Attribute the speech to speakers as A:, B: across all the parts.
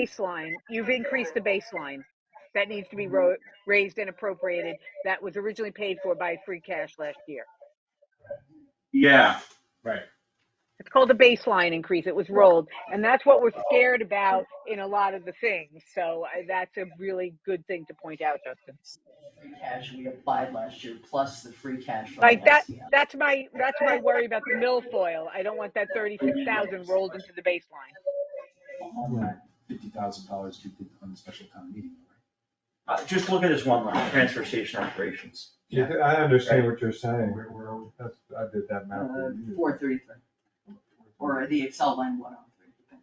A: baseline. You've increased the baseline. That needs to be ro- raised and appropriated. That was originally paid for by free cash last year.
B: Yeah, right.
A: It's called the baseline increase. It was rolled, and that's what we're scared about in a lot of the things. So I, that's a really good thing to point out, Justin.
C: free cash we applied last year, plus the free cash from
A: Like that.
C: last year.
A: That's my that's my worry about the milfoil. I don't want that thirty six thousand rolled into the baseline.
D: fifty thousand dollars to be on the special town meeting.
E: Uh, just look at this one line, transfer station operations.
F: You do- I understand what you're saying,
D: Where, where are we?
F: that's, I did that math.
E: Uh-huh.
F: for you.
C: Uh, Four thirty-three, or the Excel line one oh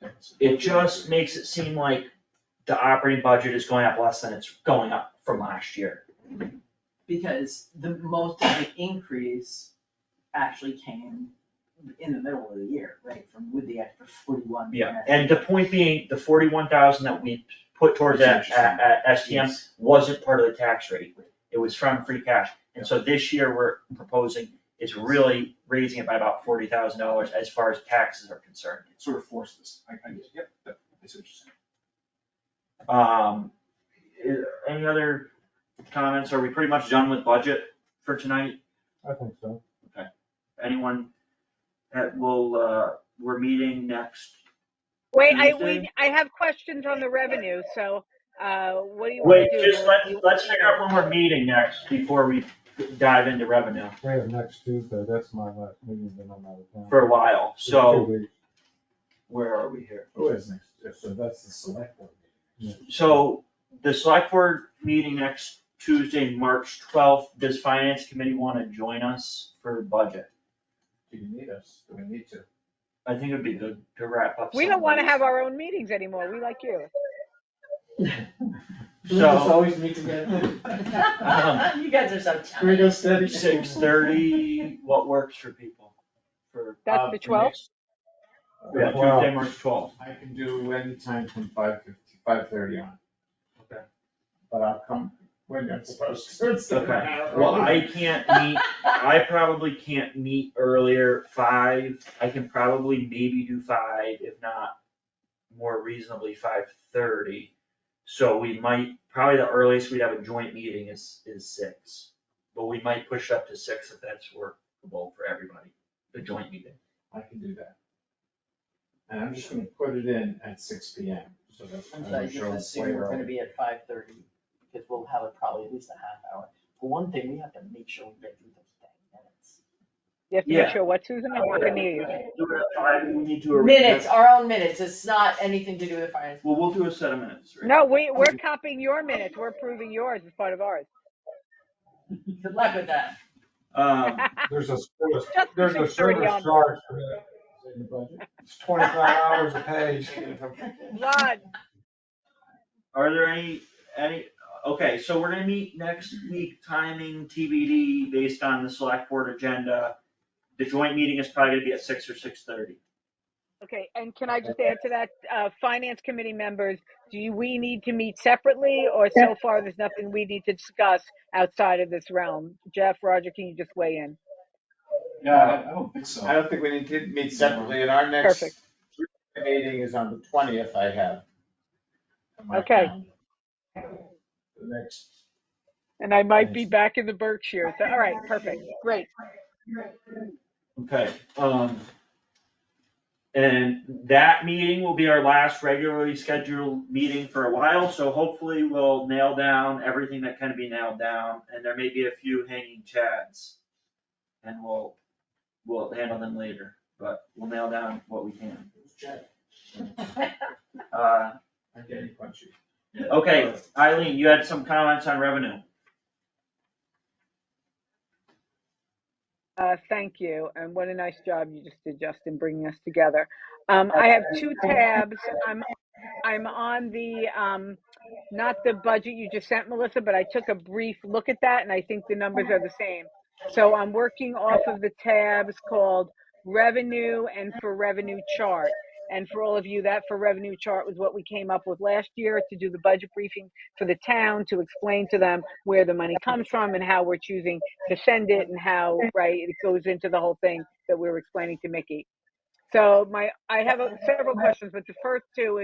C: three.
E: It just makes it seem like the operating budget is going up less than it's going up from last year.
C: Because the most of the increase actually came in the middle of the year, right, from with the extra forty-one.
E: And the point being, the forty-one thousand that we put towards that, uh, uh, STM wasn't part of the tax rate. It was from free cash. And so this year, we're proposing is really raising it by about forty thousand dollars as far as taxes are concerned.
D: Sort of forced this, I, I, yep, that, that's interesting.
E: Um, i- any other comments? Are we pretty much done with budget for tonight?
F: I think so.
E: Anyone that will, uh, we're meeting next.
A: Wait, I
E: Tuesday?
A: we I have questions on the revenue. So uh, what do you
E: Wait,
A: want to do?
E: just let, let's figure out when we're meeting next before we dive into revenue
F: We have next Tuesday, that's my last meeting, then I'm out of town.
E: for a while,
F: It's two
E: so
F: weeks.
E: where are we here?
D: Who is next? So that's the select board.
E: So the select board meeting next Tuesday, March twelfth, does finance committee wanna join us for budget?
D: Do you need us? Do we need to?
E: I think it'd be good to wrap up.
A: We
E: some
A: don't
E: of
A: want to
E: these.
A: have our own meetings anymore. We like you.
D: We
E: So-
D: just always meet together.
C: You guys are so talented.
D: We go steady.
E: Six thirty, what works for people? For,
A: That's the twelfth.
E: yeah,
F: Wow.
E: Tuesday, March twelfth.
D: Uh, I can do anytime from five fifty, five thirty on.
E: Okay.
D: But I'll come when you're supposed to. It's
E: Okay.
D: not an hour
E: Well,
D: early.
E: I can't meet, I probably can't meet earlier, five, I can probably maybe do five, if not more reasonably five thirty. So we might, probably the earliest we'd have a joint meeting is, is six, but we might push up to six if that's workable for everybody, the joint meeting.
D: I can do that. And I'm just gonna put it in at six P M, so that.
C: I'm sorry, just assume we're gonna be at five thirty, because we'll have it probably at least a half hour. For one thing, we have to make sure we get through those ten
A: You have to
E: Yeah.
A: make sure what, Susan? I'm not gonna hear you.
E: Do it at five, we need to.
C: minutes. Minutes, our own minutes, it's not anything to do with finance.
E: Well, we'll do a set of minutes, right?
A: No, we, we're copying your minutes. We're approving yours as part of ours.
C: Good luck with that.
E: Um,
F: There's a, service-
A: Just
F: there's a
A: 6:30
F: service
A: on.
F: charge for that, it's twenty-five hours a page.
A: Lon,
E: Are there any, any, okay, so we're gonna meet next week, timing TBD based on the select board agenda. The joint meeting is probably gonna be at six or six thirty.
A: okay, and can I just add to that, uh, finance committee members, do you- we need to meet separately? Or so far, there's nothing we need to discuss outside of this realm? Jeff, Roger, can you just weigh in?
D: Yeah, I don't think so.
B: I don't think we need to meet separately, and our next
A: Perfect.
B: meeting is on the twentieth, I have. on my
A: Okay.
B: calendar. The next.
A: And I might be back in the Berkshire. So, all right, perfect, great.
E: Okay, um. And that meeting will be our last regularly scheduled meeting for a while, so hopefully we'll nail down everything that can be nailed down, and there may be a few hanging chads. And we'll, we'll handle them later, but we'll nail down what we can. Uh,
D: I'm getting punchy.
E: Okay, Eileen, you had some comments on revenue.
A: Uh, thank you, and what a nice job you just did, Justin, bringing us together. Um, I have two tabs. I'm, I'm on the, um, not the budget you just sent, Melissa, but I took a brief look at that, and I think the numbers are the same. So I'm working off of the tabs called revenue and for revenue chart. And for all of you, that for revenue chart was what we came up with last year to do the budget briefing for the town, to explain to them where the money comes from and how we're choosing to send it and how, right, it goes into the whole thing that we were explaining to Mickey. So my, I have a- several questions, but the first two